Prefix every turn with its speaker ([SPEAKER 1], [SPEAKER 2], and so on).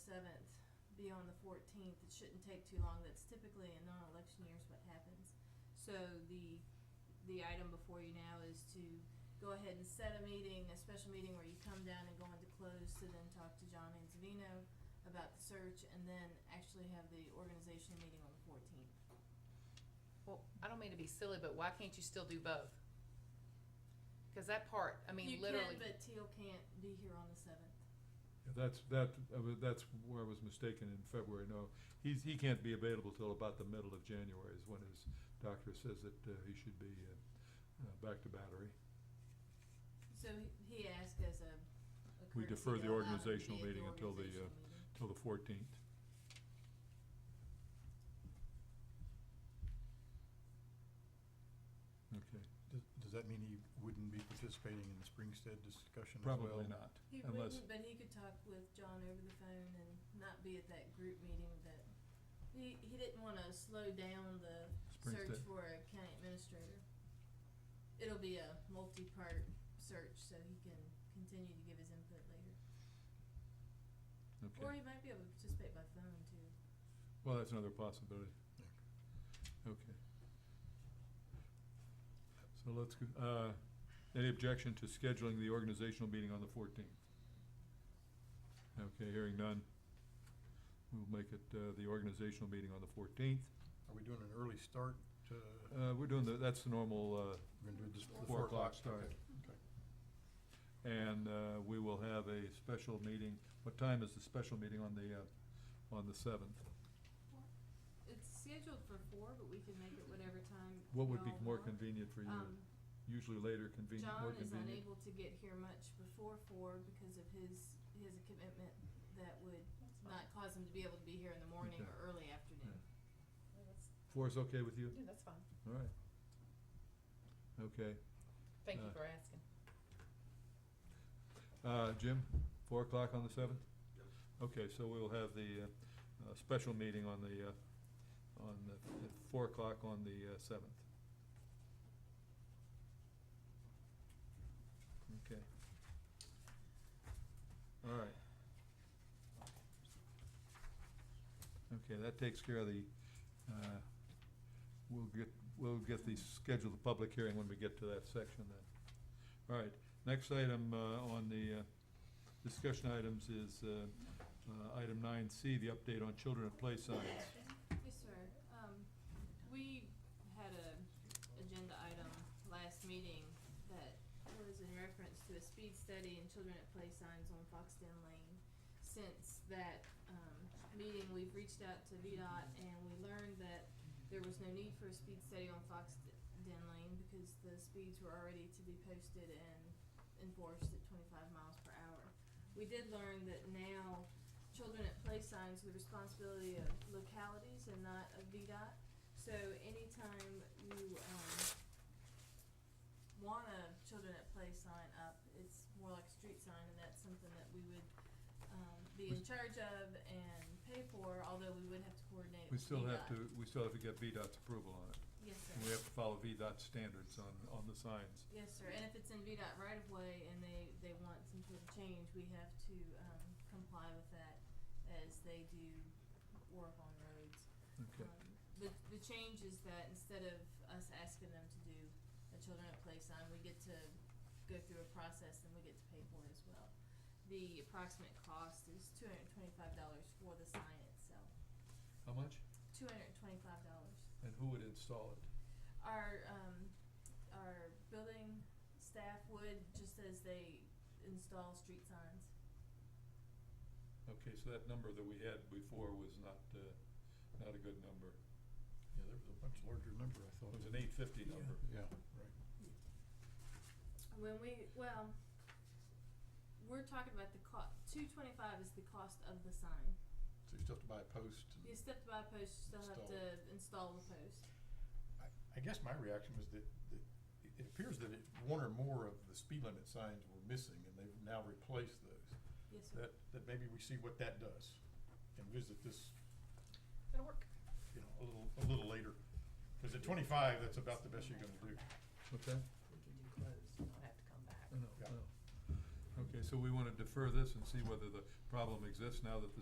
[SPEAKER 1] seventh, be on the fourteenth, it shouldn't take too long, that's typically in non-election years what happens. So the, the item before you now is to go ahead and set a meeting, a special meeting where you come down and go into close to then talk to John Anzavino about the search, and then actually have the organization meeting on the fourteenth.
[SPEAKER 2] Well, I don't mean to be silly, but why can't you still do both? Cause that part, I mean, literally,
[SPEAKER 1] You can, but Teal can't be here on the seventh.
[SPEAKER 3] Yeah, That's, that, I wa- that's where I was mistaken in February, no, he's, he can't be available till about the middle of January is when his doctor says that, uh, he should be, uh, uh, back to battery.
[SPEAKER 1] So he- he asked as a, a
[SPEAKER 3] We
[SPEAKER 1] courtesy to
[SPEAKER 3] defer
[SPEAKER 1] allow him to be
[SPEAKER 3] the organizational
[SPEAKER 1] at the
[SPEAKER 3] meeting until the,
[SPEAKER 1] organizational
[SPEAKER 3] uh,
[SPEAKER 1] meeting.
[SPEAKER 3] till the fourteenth. Okay,
[SPEAKER 4] Does, does that mean he wouldn't be participating in the Springstead discussion as well?
[SPEAKER 3] probably not,
[SPEAKER 1] He
[SPEAKER 3] unless,
[SPEAKER 1] wouldn't, but he could talk with John over the phone and not be at that group meeting that, he, he didn't wanna slow down the search
[SPEAKER 3] Springstead.
[SPEAKER 1] for a county administrator. It'll be a multi-part search, so he can continue to give his input later. Or he
[SPEAKER 3] okay,
[SPEAKER 1] might be able to participate by phone too.
[SPEAKER 3] well, that's another possibility.
[SPEAKER 4] Yeah.
[SPEAKER 3] Okay. So let's, go- uh, any objection to scheduling the organizational meeting on the fourteenth? Okay, hearing none. We'll make it, uh, the organizational meeting on the fourteenth.
[SPEAKER 4] Are we doing an early start to, we're
[SPEAKER 3] Uh, we're doing the, that's the normal, uh,
[SPEAKER 4] gonna do this, the
[SPEAKER 3] Four
[SPEAKER 4] four
[SPEAKER 3] o'clock
[SPEAKER 4] o'clock?
[SPEAKER 3] start.
[SPEAKER 4] Okay, Okay,
[SPEAKER 3] uh, and, uh, we will have a special meeting. What time is the special meeting on the, uh, on the seventh?
[SPEAKER 1] It's scheduled for four, but we can make it whatever time
[SPEAKER 3] What would be
[SPEAKER 1] y'all
[SPEAKER 3] more
[SPEAKER 1] want.
[SPEAKER 3] convenient for you?
[SPEAKER 1] Um,
[SPEAKER 3] Usually later convenient, more
[SPEAKER 1] John is
[SPEAKER 3] convenient?
[SPEAKER 1] unable to get here much before four because of his, he has a commitment that would not cause him to be able to be here in the morning
[SPEAKER 3] Okay.
[SPEAKER 1] or early afternoon.
[SPEAKER 3] Four is okay with you?
[SPEAKER 2] yeah, that's fine.
[SPEAKER 3] All right. Okay.
[SPEAKER 2] Thank you
[SPEAKER 3] Uh,
[SPEAKER 2] for asking.
[SPEAKER 3] Uh, Jim, four o'clock on the seventh? Okay, so we'll have the, uh, uh, special meeting on the, uh, on the, at four o'clock on the uh, seventh. Okay. All right. Okay, that takes care of the, uh, we'll get, we'll get the schedule, the public hearing when we get to that section then. All right, Next item uh, on the uh, discussion items is uh, uh, item nine C, the update on children at play signs.
[SPEAKER 1] Yes, sir. Um, we had a agenda item last meeting that was in reference to a speed study and children at play signs on Foxden Lane. Since that, um, meeting, we've reached out to VDOT and we learned that there was no need for a speed study on Foxden Lane because the speeds were already to be posted and enforced at twenty-five miles per hour. We did learn that now children at play signs the responsibility of localities and not of VDOT. So anytime you, um, want a children at play sign up, it's more like a street sign and that's something that we would, um, be in charge of and pay for, although we would have to coordinate with
[SPEAKER 3] We still have
[SPEAKER 1] VDOT.
[SPEAKER 3] to, we still have to get VDOT's approval on it.
[SPEAKER 1] Yes, sir.
[SPEAKER 3] And we have to follow VDOT standards on, on the signs.
[SPEAKER 1] Yes, sir, and if it's in VDOT right of way and they, they want some sort of change, we have to, um, comply with that as they do work on roads.
[SPEAKER 3] Okay,
[SPEAKER 1] Um, The, the change is that instead of us asking them to do a children at play sign, we get to go through a process and we get to pay for it as well. The approximate cost is two hundred and twenty-five dollars for the sign itself,
[SPEAKER 3] how much?
[SPEAKER 1] two hundred and twenty-five dollars.
[SPEAKER 3] And who would install it?
[SPEAKER 1] Our, um, our building staff would, just as they install street signs.
[SPEAKER 3] Okay, so that number that we had before was not, uh, not a good number.
[SPEAKER 4] yeah, that was a much larger number, I
[SPEAKER 3] It
[SPEAKER 4] thought.
[SPEAKER 3] was an eight fifty number.
[SPEAKER 4] Yeah, right.
[SPEAKER 1] When we, well, we're talking about the cost, two twenty-five is the cost of the sign.
[SPEAKER 4] So you still have to buy a post and.
[SPEAKER 1] You step by a post, you still have
[SPEAKER 4] Install
[SPEAKER 1] to
[SPEAKER 4] it.
[SPEAKER 1] install the post.
[SPEAKER 4] I, I guess my reaction was that, that it- it appears that it, one or more of the speed limit signs were missing and they've now replaced those.
[SPEAKER 1] Yes, sir.
[SPEAKER 4] That, that maybe we see what that does and visit this,
[SPEAKER 2] It'll work.
[SPEAKER 4] you know, a little, a little later. Cause at twenty-five, that's about the best you're gonna do.
[SPEAKER 3] What's that?
[SPEAKER 5] we can do closed, and not have to come back.
[SPEAKER 3] I know,
[SPEAKER 4] Yeah.
[SPEAKER 3] I know. Okay, so we wanna defer this and see whether the problem exists now that the